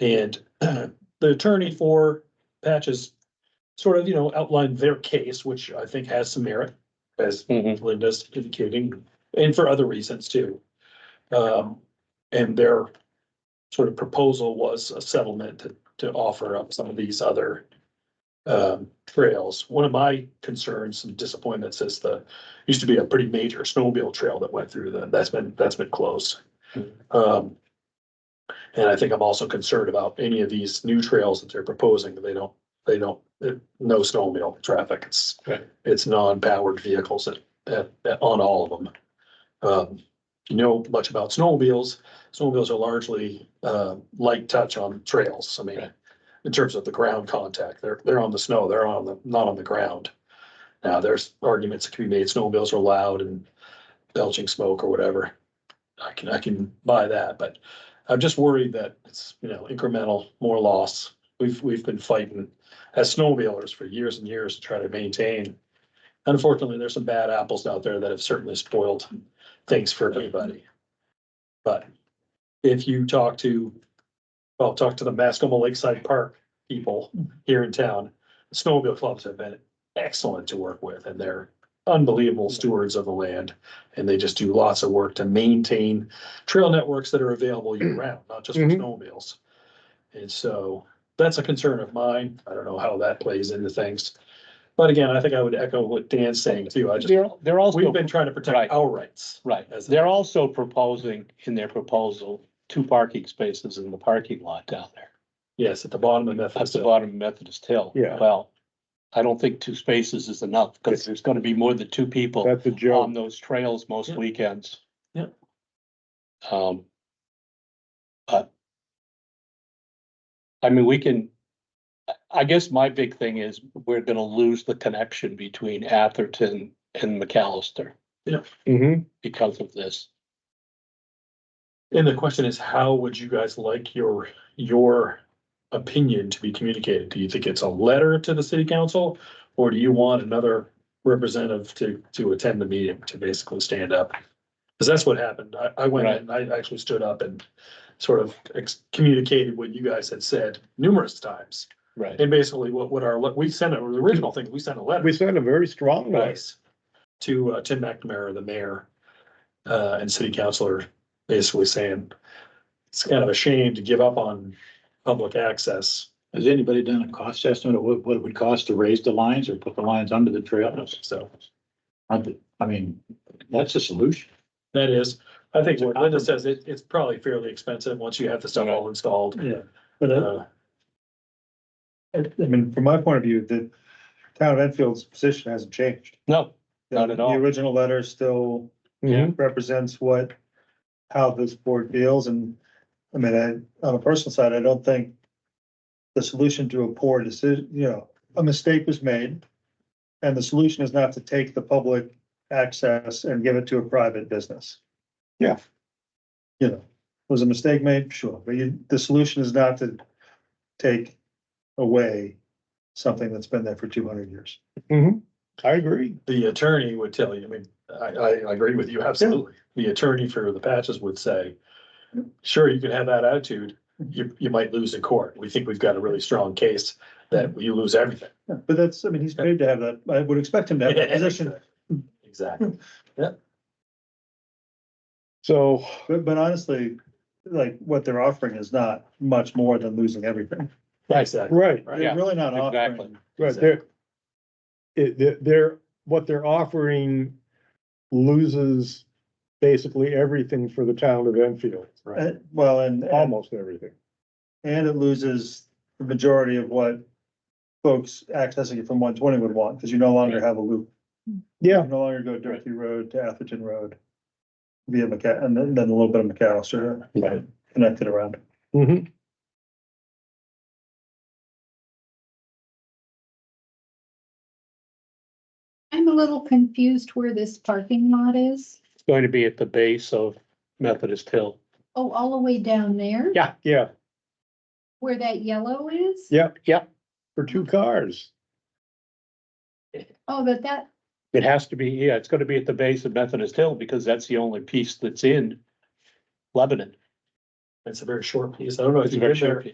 And the attorney for Patches sort of, you know, outlined their case, which I think has some merit, as Linda's indicating, and for other reasons too. Um, and their sort of proposal was a settlement to, to offer up some of these other um, trails. One of my concerns and disappointments is the, used to be a pretty major snowmobile trail that went through the, that's been, that's been closed. Um, and I think I'm also concerned about any of these new trails that they're proposing, that they don't, they don't, eh, no snowmobile traffic. It's, Right. it's non-powered vehicles at, at, at- uh, on all of them. Um, you know much about snowmobiles, snowmobiles are largely, uh, light touch on trails. I mean, Right. in terms of the ground contact, they're, they're on the snow, they're on the, not on the ground. Now, there's arguments that can be made, snowmobiles are loud and belching smoke or whatever. I can, I can buy that, but I'm just worried that it's, you know, incremental, more loss. We've, we've been fighting as snowmobilers for years and years to try to maintain. Unfortunately, there's some bad apples out there that have certainly spoiled things for everybody. But if you talk to, well, talk to the Mascoma Lakeside Park people here in town, snowmobile clubs have been excellent to work with and they're unbelievable stewards of the land. And they just do lots of work to maintain trail networks that are available year round, not just for Mhm. snowmobiles. And so that's a concern of mine. I don't know how that plays into things. But again, I think I would echo what Dan's saying too. I just, They're, they're we've also, been trying to protect Right. our rights. right, as a- they're also proposing in their proposal, two parking spaces in the parking lot down there. Yes, at the bottom of That's Memphis. the bottom of Methodist Hill. Yeah. Well, I don't think two spaces is enough, because there's gonna be more than two people That's a on joke. those trails most Yeah. weekends. Yeah. Um. But. I mean, we can, I- I guess my big thing is we're gonna lose the connection between Atherton and McAllister Mhm. because of this. And the question is, how would you guys like your, your opinion to be communicated? Do you think it's a letter to the city council? Or do you want another representative to, to attend the meeting, to basically stand up? Because that's what happened. I, I went Right. and I actually stood up and sort of ex- communicated what you guys had said numerous times. Right. And basically what, what our, le- we sent, a- the original thing, we sent a letter. We sent a very strong one. advice to uh, Tim McNamara, the mayor, uh, and city councilor, basically saying it's kind of a shame to give up on public access. Has anybody done a cost estimate of what, what it would cost to raise the lines or put the lines under the trails? So I, I mean, that's a solution. that is, I think what Linda says, it, it's probably fairly expensive once you have the stuff all installed. Yeah. But I, Uh, I mean, from my point of view, the town of Enfield's position hasn't changed. No, Not at all. The original letter still Yeah. represents what, how this board feels and, I mean, I, on a personal side, I don't think the solution to a poor decision, you know, a mistake was made. And the solution is not to take the public access and give it to a private business. Yeah. You know, was a mistake made? Sure, but you, the solution is not to take away something that's been there for two hundred years. Mm-hmm. I agree. The attorney would tell you, I mean, I, I I agree with you, absolutely. The attorney for the patches would say, sure, you can have that attitude. You, you might lose in court. We think we've got a really strong case that Hmm. you lose everything. Yeah, But that's, I mean, he's paid to have that, I would expect him to have that position, Exactly. So. but, but honestly, like, what they're offering is not much more than losing everything. Exactly. Right, Right. They're really not offering. Exactly. right, they're, it, they're- they're, what they're offering loses basically everything for the town of Enfield, Uh, Well, and, and almost everything. it loses the majority of what folks accessing it from one twenty would want, because you no longer have a loop. Yeah. You no longer go Durkey Road to Atherton Road via McCa, and then, then a little bit of McAllister Right. connected around. Mm-hmm. I'm a little confused where this parking lot is. It's going to be at the base of Methodist Hill. Oh, all the way down there? Yeah. Yeah, Where that yellow is? yeah, Yep. for two cars. Oh, but that, It has to be, yeah, it's gonna be at the base of Methodist Hill because that's the only piece that's in Lebanon. It's a very short piece. I don't know if It's a you've very been short there. piece.